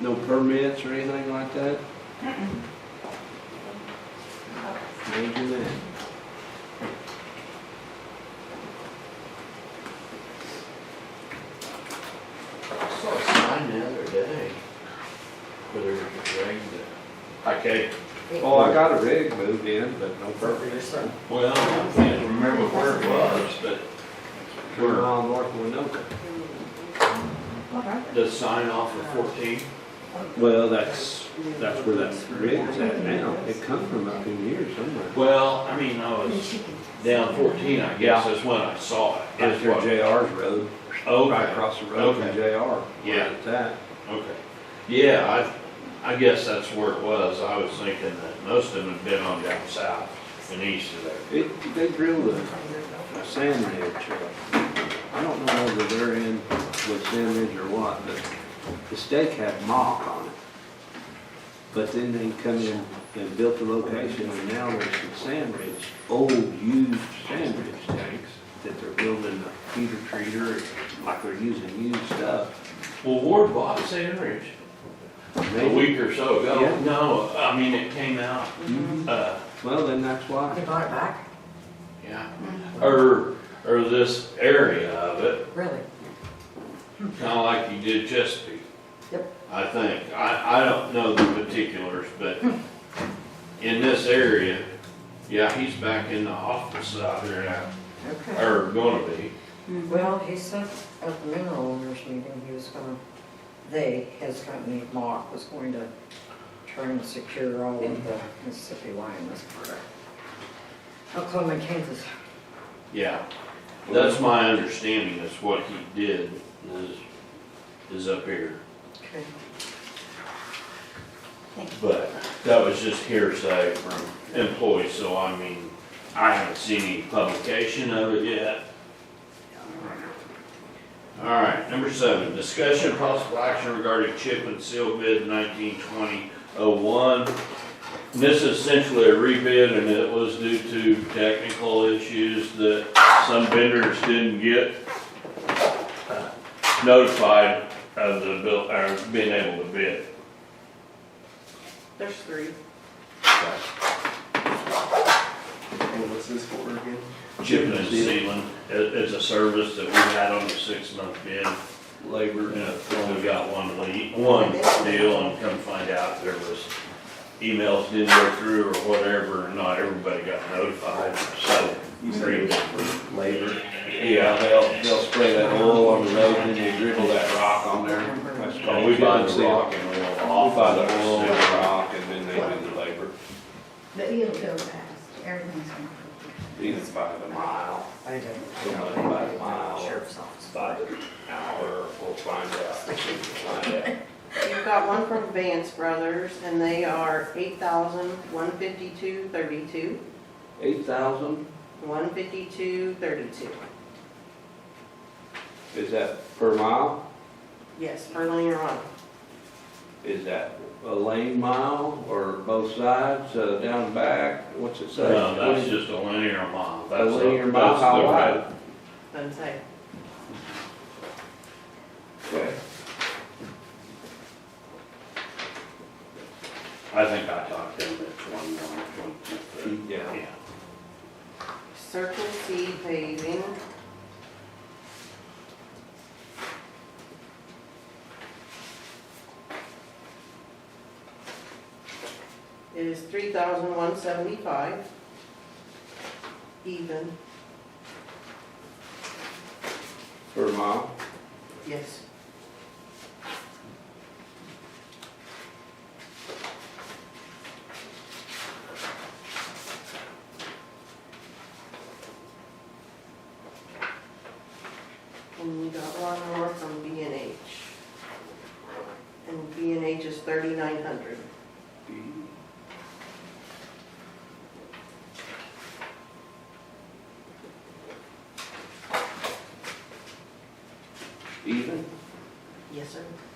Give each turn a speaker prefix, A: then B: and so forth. A: No permits or anything like that? Imagine that.
B: I saw a sign the other day where they were dragging the, okay.
A: Oh, I got a rig moved in, but no permit.
B: Perfect, sir. Well, I can't remember where it was, but
A: We're on North Winoka.
B: the sign off of fourteen,
A: Well, that's, that's where that rig's at now. It come from up in here somewhere.
B: well, I mean, I was down fourteen, I guess,
A: Yeah.
B: that's when I saw it.
A: It's
B: That's
A: your
B: what- Oh,
A: JR's road, right
B: Okay,
A: across the road from
B: Okay.
A: JR.
B: Yeah.
A: It's at.
B: okay. Yeah, I, I guess that's where it was. I was thinking that most of them had been on down south and east of there.
A: It, they drilled a, a sand ridge. uh, I don't know whether they're in with sand ridge or what, but the stake had mock on it. But then they come in and built the location and now there's some sand ridge, old used sand ridge tanks that they're building a heater treater, like they're using used stuff.
B: Well, Ward bought Sand Ridge a
A: Maybe-
B: week or so ago.
A: Yeah.
B: No, I mean, it came out,
A: Mhm.
B: uh,
A: Well, then that's
C: They
A: why.
C: bought it back?
B: yeah, or, or this area of it.
C: Really?
B: Kind of like you did Chesapeake.
C: Yep.
B: I think. I, I don't know the particulars, but in this area, yeah, he's back in the office out there now,
C: Okay.
B: or gonna be.
C: Well, he said at the mineral owners meeting, he was gonna, they, his company, Mock, was going to try and secure all of the Mississippi line as part of Oklahoma, Kansas.
B: Yeah. That's my understanding, is what he did, is, is up here.
C: Okay.
B: But that was just hearsay from employees, so I mean, I haven't seen any publication of it yet. All right, number seven, discussion of possible action regarding chip and seal bid nineteen twenty oh one. This is essentially a rebid and it was due to technical issues that some vendors didn't get uh, notified of the bill, or being able to bid.
D: There's three.
E: And what's this for again?
B: Chipping and sealing, it, it's a service that we had on the six-month bid,
A: Labor.
B: and we only got one lead, one deal, and come find out there was emails didn't go through or whatever, and not everybody got notified, so.
E: You said it was for labor.
B: Yeah,
A: They'll, they'll spray that oil on the road and they dribble that rock on there. That's
B: so
A: called
B: we
A: chip
B: buy the
A: and seal.
B: rock and roll
A: Off
B: off
A: by
B: of
A: the oil and the
B: it.
A: rock and then they do the labor,
F: But it'll go fast, everything's going
A: either by the mile,
C: I don't
A: Somebody by the mile.
C: know. Sheriff's office.
A: by the hour, we'll find out. Find out.
D: You've got one from Vance Brothers, and they are eight thousand, one fifty-two, thirty-two,
A: Eight thousand,
D: one fifty-two, thirty-two.
A: is that per mile?
D: Yes, for linear on.
A: Is that a lane mile or both sides, uh, down and back? What's it say?
B: No, that's just a linear mile, that's, a-
A: linear mile,
B: that's
A: how
B: the
A: wide?
B: red.
D: doesn't say.
A: Okay.
B: I think I talked to him at twenty-one, twenty-two.
A: Yeah.
D: Circle C paving. It is three thousand one seventy-five. Even,
A: Per mile,
D: yes. And you got one more from B and H. And B and H is thirty-nine hundred.
A: even?
D: Yes, sir.